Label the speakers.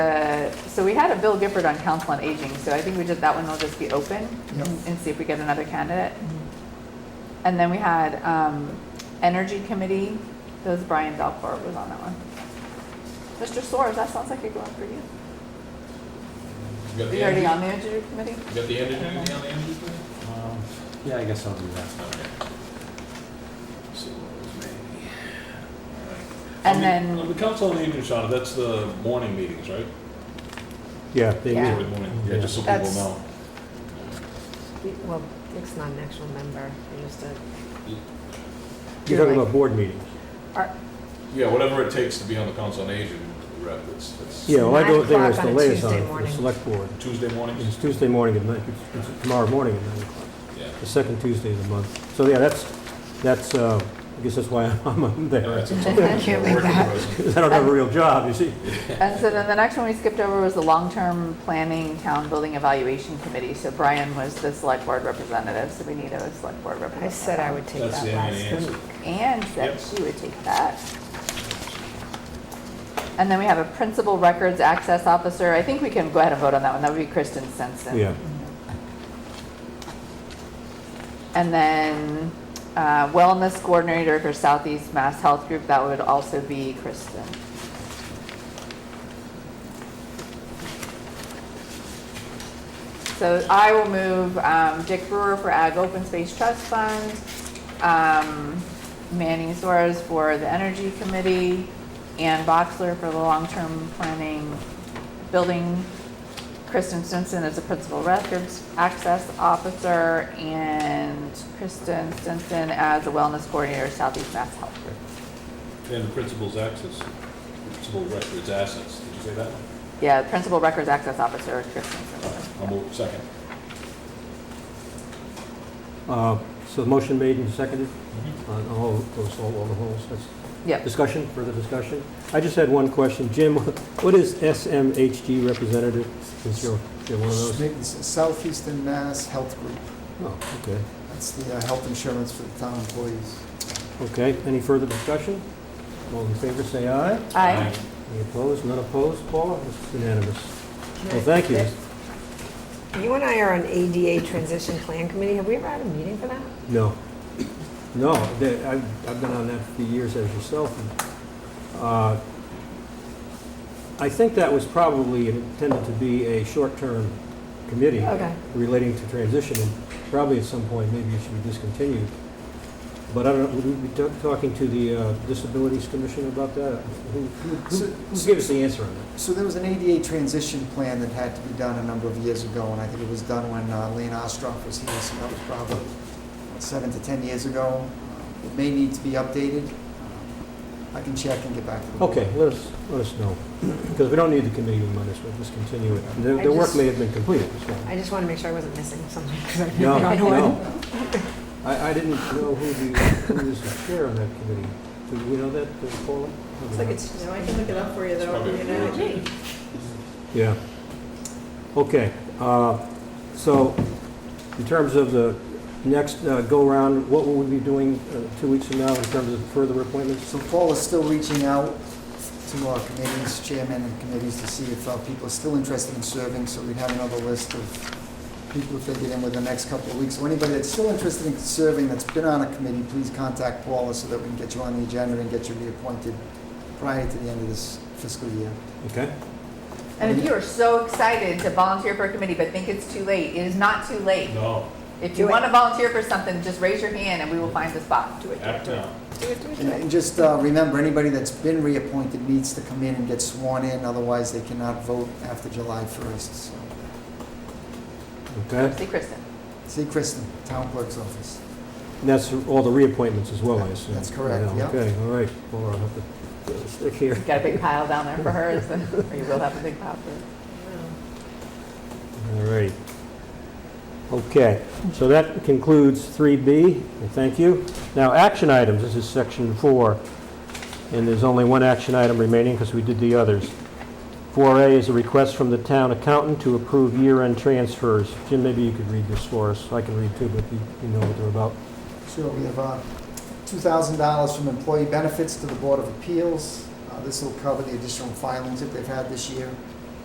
Speaker 1: So we had a Bill Gifford on Council on Aging, so I think we did, that one will just be open
Speaker 2: Yep.
Speaker 1: and- and see if we get another candidate.
Speaker 3: Mm-hmm.
Speaker 1: And then we had um, Energy Committee, those Brian Belcourt was on that one. Mr. Soares, that sounds like you're going for you.
Speaker 4: You got
Speaker 1: Are
Speaker 4: the
Speaker 1: you already
Speaker 4: energy-
Speaker 1: on the Energy Committee?
Speaker 4: You got the energy, on the energy plan?
Speaker 5: Um, Yeah, I guess I'll do that.
Speaker 4: Okay. See what was made. All right.
Speaker 1: And
Speaker 4: On the-
Speaker 1: then-
Speaker 4: on The council on aging, Shauna, that's the morning meetings, right?
Speaker 5: Yeah.
Speaker 1: Yeah.
Speaker 4: Every morning, yeah, just so people
Speaker 1: That's-
Speaker 4: know.
Speaker 3: Well, Nick's not an actual member, you're just a,
Speaker 5: You're talking about board meetings.
Speaker 3: are-
Speaker 4: Yeah, whatever it takes to be on the council on aging rep, it's, it's
Speaker 5: Yeah, well, I go there as the
Speaker 3: Nine o'clock on a Tuesday
Speaker 5: liaison for the
Speaker 3: morning.
Speaker 5: select board.
Speaker 4: Tuesday
Speaker 5: It's
Speaker 4: mornings.
Speaker 5: Tuesday morning at nine, it's tomorrow morning at nine o'clock,
Speaker 4: Yeah,
Speaker 5: the second Tuesday of the month. So, yeah, that's, that's, uh, I guess that's why I'm- I'm
Speaker 4: Yeah,
Speaker 5: there.
Speaker 4: that's a
Speaker 3: can't make
Speaker 4: working
Speaker 3: that.
Speaker 4: president.
Speaker 5: Because I don't have a real job, you see.
Speaker 1: And so then the next one we skipped over was the long-term planning town building evaluation committee. So Brian was the select board representative, so we need a select board
Speaker 3: I
Speaker 1: representative.
Speaker 3: said I would take
Speaker 4: That's
Speaker 3: that
Speaker 4: the only
Speaker 3: last
Speaker 4: answer.
Speaker 3: week.
Speaker 1: And said
Speaker 4: Yep.
Speaker 1: she would take that. And then we have a principal records access officer. I think we can go ahead and vote on that one. That would be Kristen Sensen.
Speaker 5: Yeah.
Speaker 1: And then uh, wellness coordinator for Southeast Mass Health Group, that would also be Kristen. So I will move um, Dick Brewer for Ag Open Space Trust Fund, um, Manny Suarez for the Energy Committee, Ann Boxler for the Long-Term Planning Building, Kristen Stinson as the Principal Records Access Officer, and Kristen Stinson as the Wellness Coordinator, Southeast Mass Health Group.
Speaker 4: And the principal's access, principal records assets, did you say that one?
Speaker 1: Yeah, Principal Records Access Officer, Kristen
Speaker 4: All right,
Speaker 1: Stinson.
Speaker 4: I'll move second.
Speaker 5: Uh, So the motion made and seconded on all those, all all the holes. That's-
Speaker 1: Yep.
Speaker 5: Discussion, further discussion? I just had one question. Jim, what is SMHG representative, since you're, you're one of those?
Speaker 2: Southeastern Mass Health Group.
Speaker 5: Oh, okay.
Speaker 2: That's the uh, health insurance for the town employees.
Speaker 5: Okay, any further discussion? All in favor, say aye.
Speaker 1: Aye.
Speaker 5: Any opposed? None opposed? Paula, it's unanimous. Well, thank you.
Speaker 3: You and I are on ADA Transition Plan Committee, have we ever had a meeting for that?
Speaker 5: No, no, they- I've I've been on that for years as yourself. and, uh, I think that was probably intended to be a short-term committee
Speaker 3: Okay.
Speaker 5: relating to transition, and probably at some point, maybe it should be discontinued. But I don't, know. would we be ta- talking to the uh, Disabilities Commission about that? Who who-
Speaker 2: So-
Speaker 5: who gave us the answer on that?
Speaker 2: So there was an ADA transition plan that had to be done a number of years ago, and I think it was done when uh, Lane Ostroff was here, so that was probably what, seven to 10 years ago. Uh, It may need to be updated. Um, I can check and get back to the board.
Speaker 5: Okay, let us, let us know, because we don't need the committee on this, we'll just continue it. The
Speaker 3: I
Speaker 5: the work
Speaker 3: just-
Speaker 5: may have been completed, so.
Speaker 3: I just want to make sure I wasn't missing something, because I picked
Speaker 5: No,
Speaker 3: the wrong one.
Speaker 5: no. I, I didn't know who the, who was the chair on that committee. Do we know that, uh, Paula?
Speaker 6: It's like it's, no, I can look it up for you
Speaker 4: It's
Speaker 6: though.
Speaker 4: probably
Speaker 6: You know,
Speaker 4: yours.
Speaker 5: Yeah. Okay, uh, so in terms of the next uh, go-round, what will we be doing uh, two weeks from now in terms of further appointments?
Speaker 2: So Paul is still reaching out to our committees, chairmen and committees, to see if uh, people are still interested in serving, so we'd have another list of people if they get in within the next couple of weeks. So anybody that's still interested in serving, that's been on a committee, please contact Paula so that we can get you on the agenda and get you reappointed prior to the end of this fiscal year.
Speaker 5: Okay?
Speaker 1: And if you are so excited to volunteer for a committee but think it's too late, it is not too late.
Speaker 4: No,
Speaker 1: If you
Speaker 3: Do it.
Speaker 1: want to volunteer for something, just raise your hand and we will find the spot. Do it.
Speaker 4: act now.
Speaker 2: And- And just uh, remember, anybody that's been reappointed needs to come in and get sworn in, otherwise they cannot vote after July 1st. So,
Speaker 5: Okay?
Speaker 1: See Kristen.
Speaker 2: See Kristen, Town Clerk's Office.
Speaker 5: And that's all the reappointments as well, I assume?
Speaker 2: That's correct,
Speaker 5: Right now.
Speaker 2: yeah.
Speaker 5: Okay, all right. Paula, I'll have to uh, stick here.
Speaker 1: Got a big pile down there for hers, and- or you will have a big pile for
Speaker 5: All right. Okay, so that concludes 3B, and thank you. Now, action items, this is section four, and there's only one action item remaining because we did the others. 4A is a request from the town accountant to approve year-end transfers. Jim, maybe you could read this for us. I can read too, but you you know what they're about.
Speaker 2: Sure, we have uh, $2,000 from employee benefits to the Board of Appeals. Uh, This will cover the additional filings that they've had this year.